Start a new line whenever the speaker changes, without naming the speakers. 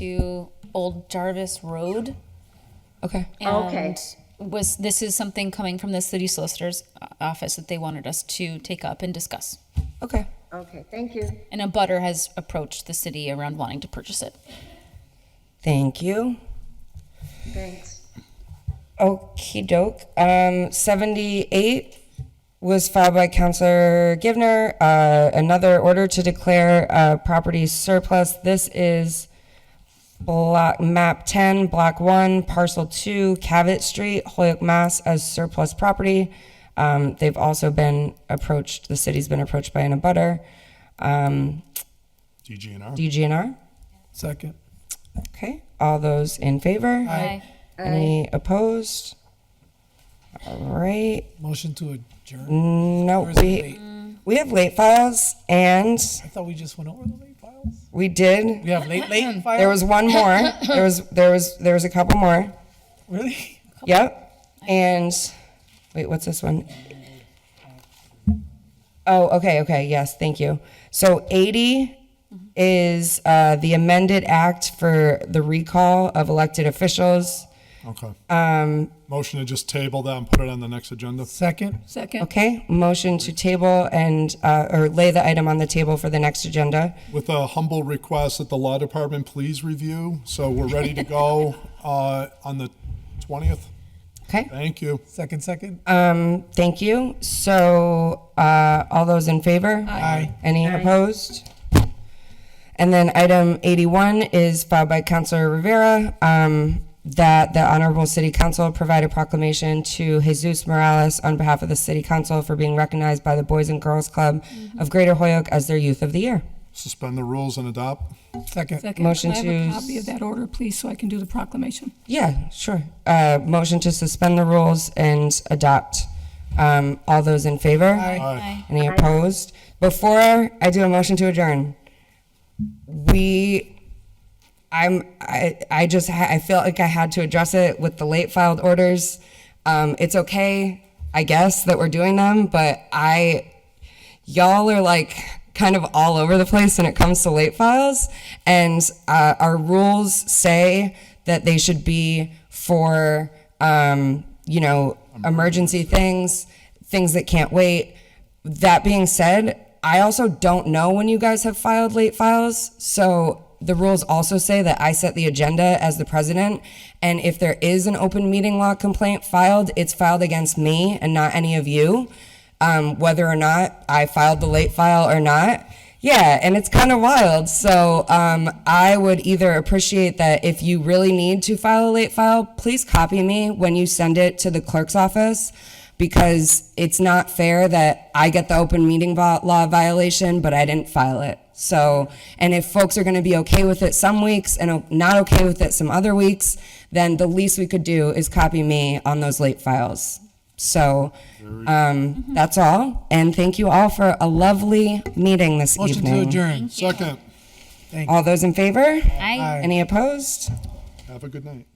to Old Jarvis Road.
Okay.
And
Okay.
was, this is something coming from the city solicitor's o- office that they wanted us to take up and discuss.
Okay.
Okay, thank you.
And a butter has approached the city around wanting to purchase it.
Thank you.
Thanks.
Okie doke. Um, 78 was filed by Counselor Givner. Uh, another order to declare uh, property surplus. This is block map 10, block 1, parcel 2, Cavett Street, Holyoke, Mass. as surplus property. Um, they've also been approached, the city's been approached by an abutter. Um,
DGNR.
DGNR.
Second.
Okay. All those in favor?
Aye.
Any opposed? All right.
Motion to adjourn. Or
No,
is it
we,
late?
we have late files and
I thought we just went over the late files.
we did.
We have late, late files?
There was one more. There was there was there was a couple more.
Really?
Yep. And wait, what's this one? Oh, okay, okay. Yes, thank you. So 80 is uh, the amended act for the recall of elected officials.
Okay. Um. Motion to just table that and put it on the next agenda.
Second.
Okay, motion to table and uh, or lay the item on the table for the next agenda.
With a humble request that the law department please review, so we're ready to go, uh, on the twentieth.
Okay.
Thank you.
Second, second.
Thank you. So, uh, all those in favor?
Aye.
Any opposed? And then item 81 is filed by Counselor Rivera, um, that the Honorable City Council provide a proclamation to Jesus Morales on behalf of the City Council for being recognized by the Boys and Girls Club of Greater Hoyoke as their Youth of the Year.
Suspend the rules and adopt.
Second.
Second.
Motion
Can I have
to-
a copy of that order, please, so I can do the proclamation?
Yeah, sure. Uh, motion to suspend the rules and adopt. Um, all those in favor?
Aye.
Any opposed? Before I do a motion to adjourn, we, I'm, I, I just, ha- I feel like I had to address it with the late filed orders. Um, it's okay, I guess, that we're doing them, but I, y'all are like kind of all over the place when it comes to late files. And uh, our rules say that they should be for, um, you know, emergency things, things that can't wait. That being said, I also don't know when you guys have filed late files. So the rules also say that I set the agenda as the president. And if there is an open meeting law complaint filed, it's filed against me and not any of you um, whether or not I filed the late file or not. Yeah, and it's kind of wild. So um, I would either appreciate that if you really need to file a late file, please copy me when you send it to the clerk's office because it's not fair that I get the open meeting vo- law violation, but I didn't file it. So, and if folks are going to be okay with it some weeks and o- not okay with it some other weeks, then the least we could do is copy me on those late files. So um, that's all. And thank you all for a lovely meeting this
Motion to
evening.
adjourn.
Second.
All those in favor?
Aye.
Aye.
Any opposed?
Have a good night.